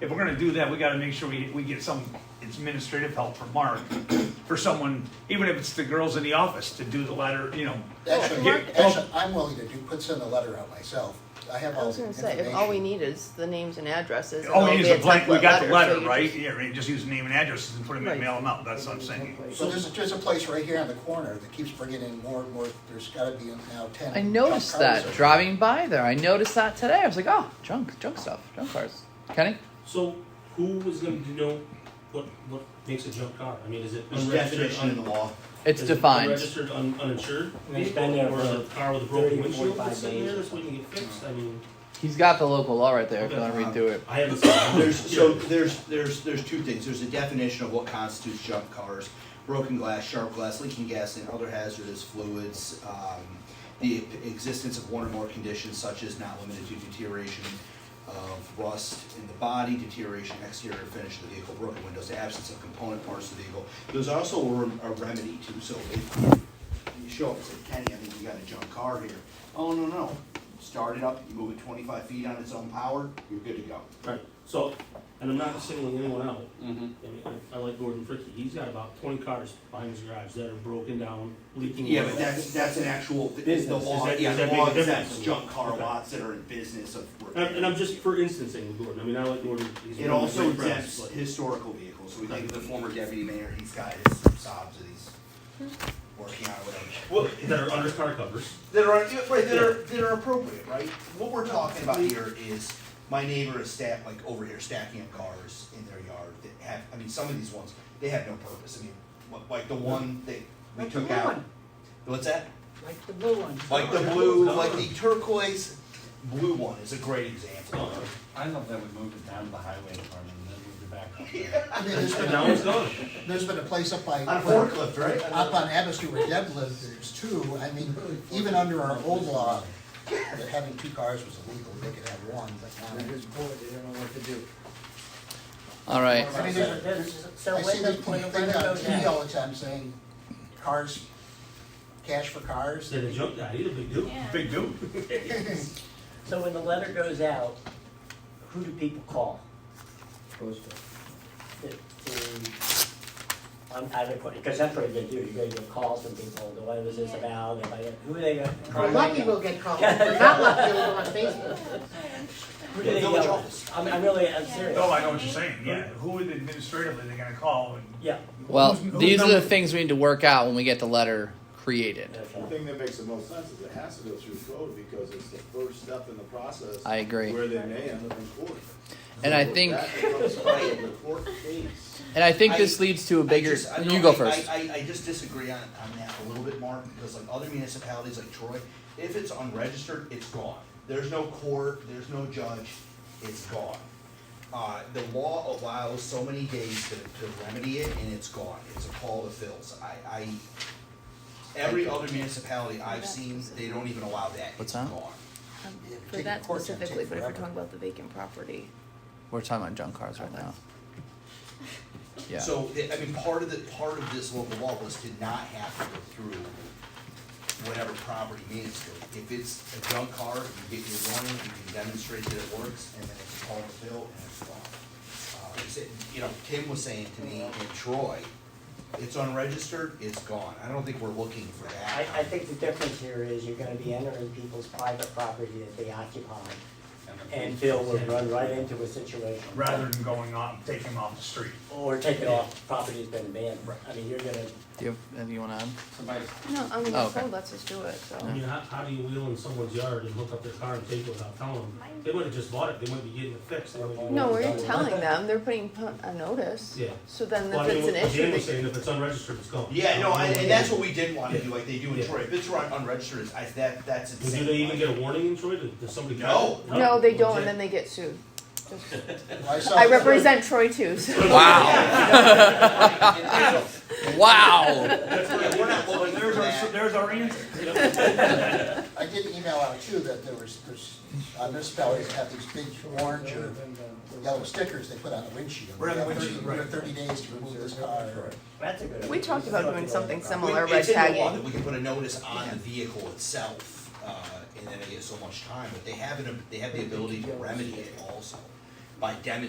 if we're gonna do that, we gotta make sure we, we get some administrative help from Mark, for someone, even if it's the girls in the office, to do the letter, you know. Actually, get- oh, Oh. actually, I'm willing to do, put send a letter out myself. I have I all was the gonna say, if all we information. need is the names and addresses. and Oh, there'll it is be a blank, we template got the so letter, you right? just- Yeah, right, just use name and addresses and put them in, Right. mail them out, that's what I'm saying. So there's, there's a place right here on the corner that keeps bringing in more and more, there's gotta be now ten. I noticed junk cars that over there. driving by there. I noticed that today. I was like, oh, junk, junk stuff, junk cars. Kenny? So who is going to know what what makes a junk car? I mean, is it There's a unregistered? definition in the law. It's is it defined. Unregistered, un, uninsured And it's vehicle, been there or for a car with a broken 30, windshield that's 45 sitting there days or that's waiting to get fixed. I mean, He's got the local law right there if you want to Okay. read through it. I haven't seen. it. There's, so Yeah. there's, there's, there's two things. There's a definition of what constitutes junk cars. Broken glass, sharp glass, leaking gas, and other hazardous fluids. Um, the existence of one or more conditions such as not limited to deterioration of rust in the body, deterioration exterior finish of the vehicle, broken windows, absence of component parts of the vehicle. There's also a rem- a remedy too, so if you show up and say, Kenny, I think you got a junk car here. Oh, no, no. Start it up, you move it twenty-five feet on its own power, you're good to go. Right. So, and I'm not singling anyone out. Mm-hmm. I, mean, I, I like Gordon Fricky. He's got about 20 cars behind his garage that are broken down, leaking. Yeah, oil. but that's, that's an actual, the Business. Does law, that- yeah, does the that make law a difference? exempts junk car Okay. lots that are in business of repair. And, and I'm just for instancing with Gordon. I mean, I like Gordon. He's It one of my also great friends, exempts but- historical vehicles, so we think of the former deputy mayor, he's got his sobs that he's working on, whatever. Well, that are under car covers. That are, right, that are, that are appropriate, right? What we're talking about here is, my neighbor is stack, like over here stacking up cars in their yard that have, I mean, some of these ones, they have no purpose, I mean, what- like the one that we Like the took blue out. one. What's that? Like the blue one. Like the blue, like the turquoise blue one is a great example. I love that we moved it down to the highway department and then moved it back up there. I mean, there's And now it's been, gone. there's been a place up by. On a forklift, right? Up on Abbott Street where Deb lived, there's two, I mean, even under our old law, that having two cars was illegal, they could have one, but They're now. just bored, they don't know what to do. All right. I mean, there's, there's, I see this thing on TV all the time saying, cars, cash for cars. Said a junk guy. He's a big dude. Big dude. So when the letter goes out, who do people call? The- the- I'm, I don't, because that's what you're gonna do, you're gonna get calls from people, what was this about, Am I- who are they gonna? Well, lucky will get called, We're not lucky will go on Facebook. Who do they Village yell at? office. I'm, I'm really, I'm serious. Oh, I know what you're saying, yeah, who is administratively they gonna call and Yeah. Well, Who's- who's these are number- the things we need to work out when we get the letter created. okay. The thing that makes the most sense is it has to go through code because it's the first step in the process. I agree. Where they may end up in court. And I So think- That becomes part of the court case. And I think I- this leads to a bigger. I just- I you don't- go I- first. I, I, I just disagree on, on that a little bit, Mark, because like other municipalities like Troy, if it's unregistered, it's gone. There's no court, there's no judge, it's gone. Uh, the law allows so many days to, to remedy it and it's gone. It's a call to fills. I, I, every other municipality I've seen, they don't even allow that. What's It's that? gone. Um, Yeah, For take that the court's gonna specifically, take but if we're forever. talking about the vacant property, We're talking about junk cars right now. Yeah. So, I I mean, part of the, part of this local law was to not have to go through whatever property means to it. If it's a junk car, you get your warning, you can demonstrate that it works, and then it's called a bill and it's gone. Uh, is it- You know, Tim was saying to me in Troy, it's unregistered, it's gone. I don't think we're looking for I, that. I think the difference here is you're gonna be entering people's private property that they occupy, and Bill would run right into a situation. rather than going off, taking them off the street. Or take it off, property's been banned, I mean, you're gonna, Do you have anything you want to add? Somebody's no, I mean, Oh, the okay. code lets us do it, so. I mean, how, how do you wheel in someone's yard and hook up their car and take it without telling them? They would've just bought it, they wouldn't be getting it fixed. They would've- No, we're telling them, they're putting pu- a notice, Yeah. so then Well, I if mean, it's an what Dan was issue, saying, if it's unregistered, it's gone. Yeah, no, and, and that's what we didn't wanna do, like they do in Yeah. Troy. If it's run unregistered, it's- I, that, that's And insane. Do they even get a warning in Troy? Does does somebody? No. they- no, they don't, and then they get sued. Just- Well, I saw- I represent Troy too, so. Wow. wow. Yeah, We're not looking for There's our, that. there's our answer. I did email out too that there was, there's, uh, municipalities have these big orange or yellow stickers they put on the windshield. Right, on the You have windshield, thirty- you right. have Thirty days to remove this car. that's a good. We talked about doing something similar. similar, We- red It's in the law that tagging. we can put a notice on the vehicle itself, uh, and then they get so much time, but they have an, they have the ability to remedy it also by demonstrating